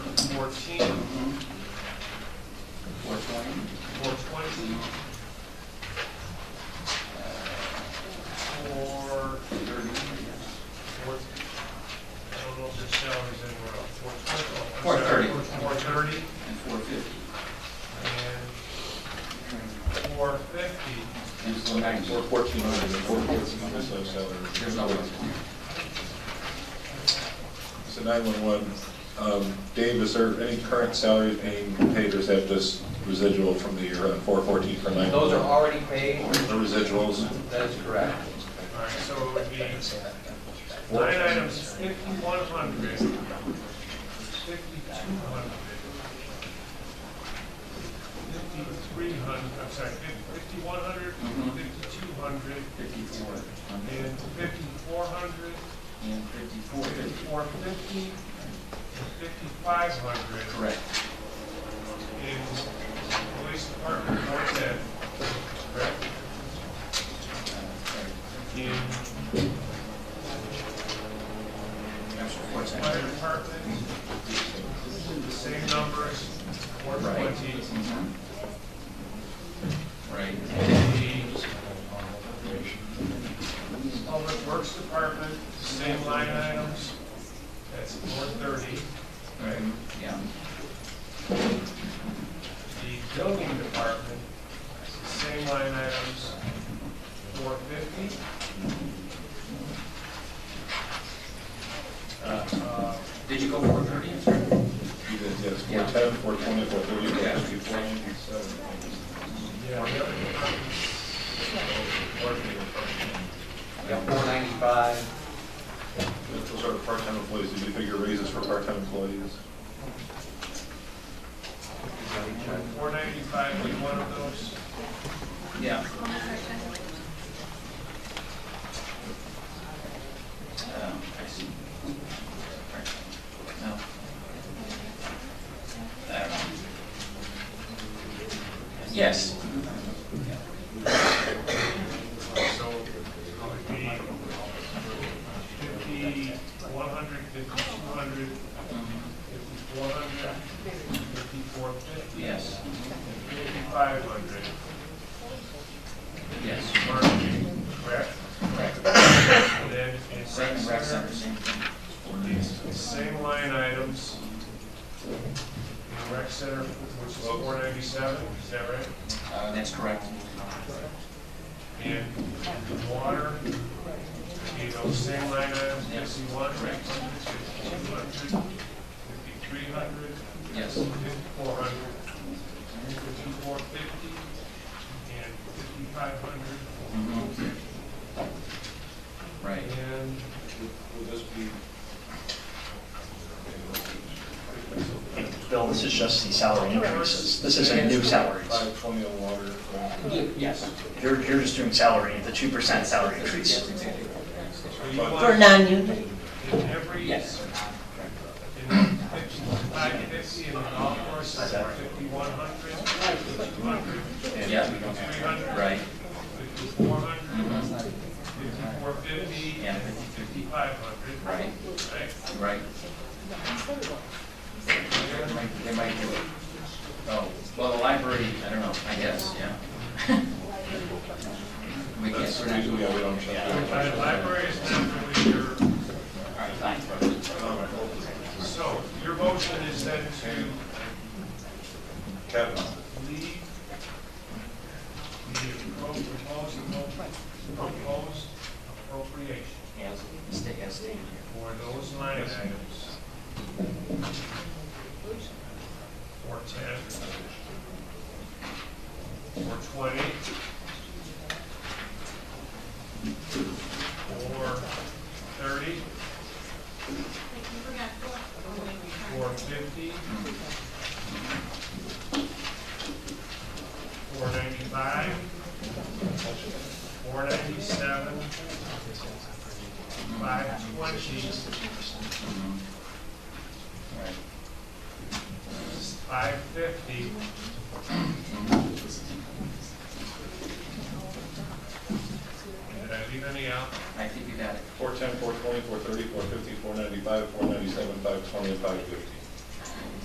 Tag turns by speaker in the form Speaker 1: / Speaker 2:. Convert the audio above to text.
Speaker 1: fourteen,
Speaker 2: Four twenty?
Speaker 1: four twenty, four, four, I don't know if there's salaries anywhere else, four twenty.
Speaker 2: Four thirty.
Speaker 1: Four thirty
Speaker 2: And four fifty.
Speaker 1: and four fifty.
Speaker 2: And so nine,
Speaker 3: Or
Speaker 2: four,
Speaker 3: fourteen hundred, four fourteen hundred, so salary.
Speaker 2: there's no way.
Speaker 3: So nine-one-one, um, Dave, is there any current salaries being paid, or is that just residual from the year, uh, four fourteen for nine?
Speaker 4: Those are already paid,
Speaker 3: The residuals?
Speaker 4: that is correct.
Speaker 1: All right, so it would be line items fifty-one hundred, fifty-two hundred, fifty-three hundred, I'm sorry, fifty-one hundred,
Speaker 2: Mhm.
Speaker 1: fifty-two hundred,
Speaker 2: Fifty-four
Speaker 1: and
Speaker 2: hundred.
Speaker 1: fifty-four hundred,
Speaker 2: And fifty-four fifty.
Speaker 1: fifty-four fifty, and fifty-five hundred.
Speaker 2: Correct.
Speaker 1: In police department, what's that? Correct? In
Speaker 2: That's four
Speaker 1: fire
Speaker 2: ten.
Speaker 1: department, the same numbers, four
Speaker 2: Right.
Speaker 1: twenty,
Speaker 2: Mhm. Right.
Speaker 1: the public works department, same line items, that's four thirty.
Speaker 2: Right. Yeah.
Speaker 1: The building department, same line items, four fifty. Uh,
Speaker 2: Did you go four thirty?
Speaker 3: You did, yes,
Speaker 2: Yeah.
Speaker 3: four-ten, four-twenty, four-thirty,
Speaker 2: Yeah.
Speaker 3: four-fifteen, seven.
Speaker 1: yeah, the other departments,
Speaker 4: Yeah, four ninety-five,
Speaker 3: Those are part-time employees, did you figure raises for part-time employees?
Speaker 1: four ninety-five, be one of those.
Speaker 2: Yeah. Uh, I see. No. I don't know. Yes.
Speaker 1: So it would be fifty, one hundred, fifty-two hundred, fifty-four hundred, fifty-four fifty,
Speaker 2: Yes,
Speaker 1: fifty-five hundred.
Speaker 2: yes.
Speaker 1: Marketing, correct?
Speaker 2: Correct.
Speaker 1: And then in
Speaker 2: Same
Speaker 1: rec
Speaker 2: in rec
Speaker 1: center,
Speaker 2: center, same thing.
Speaker 1: it's the same line items. In rec center, which is four ninety-seven, is that right?
Speaker 2: Uh, That's correct.
Speaker 1: And the water, you know, same line items,
Speaker 2: Yeah.
Speaker 1: fifty-one, fifty-two hundred, fifty-three hundred,
Speaker 2: Yes.
Speaker 1: fifty-four hundred, fifty-four fifty, and fifty-five hundred,
Speaker 2: Mhm. Right.
Speaker 1: and
Speaker 5: Bill, this is just the salary increases. This isn't new salaries.
Speaker 3: Five-twenty on water. uh,
Speaker 2: Yes.
Speaker 5: You're, you're just doing salary, the 2% salary increase.
Speaker 1: so you
Speaker 3: For
Speaker 6: For
Speaker 1: want
Speaker 6: non-union,
Speaker 1: in every, in
Speaker 2: Yes.
Speaker 1: fifty-five fifty, in the golf course, fifty-one hundred, fifty-two hundred,
Speaker 2: Yeah,
Speaker 1: fifty-three hundred,
Speaker 2: right.
Speaker 1: fifty-four hundred, fifty-four fifty,
Speaker 2: Yeah, fifty-fifty.
Speaker 1: Five hundred.
Speaker 2: Right, right. They might- They might do it. Oh, well, the library, I don't know, I guess, yeah. We
Speaker 3: That's,
Speaker 2: guess we're
Speaker 3: yeah,
Speaker 2: not
Speaker 3: we
Speaker 2: doing it.
Speaker 3: don't check.
Speaker 1: Right, library is not really your,
Speaker 2: All right, fine.
Speaker 1: so your motion is then to
Speaker 3: Kevin?
Speaker 1: leave the proposed, proposed appropriation
Speaker 2: As, stay, as stated
Speaker 1: for those line items. Four ten, four twenty, four thirty, four fifty, four ninety-five, four ninety-seven, Mm-hmm. five twenty,
Speaker 2: here. Right.
Speaker 1: Five fifty. Did I leave any out?
Speaker 2: I think you got it.
Speaker 3: Four-ten, four-twenty, four-thirty, four-fifty, four-ninety-five, four-ninety-seven, five-twenty, and five-fifty.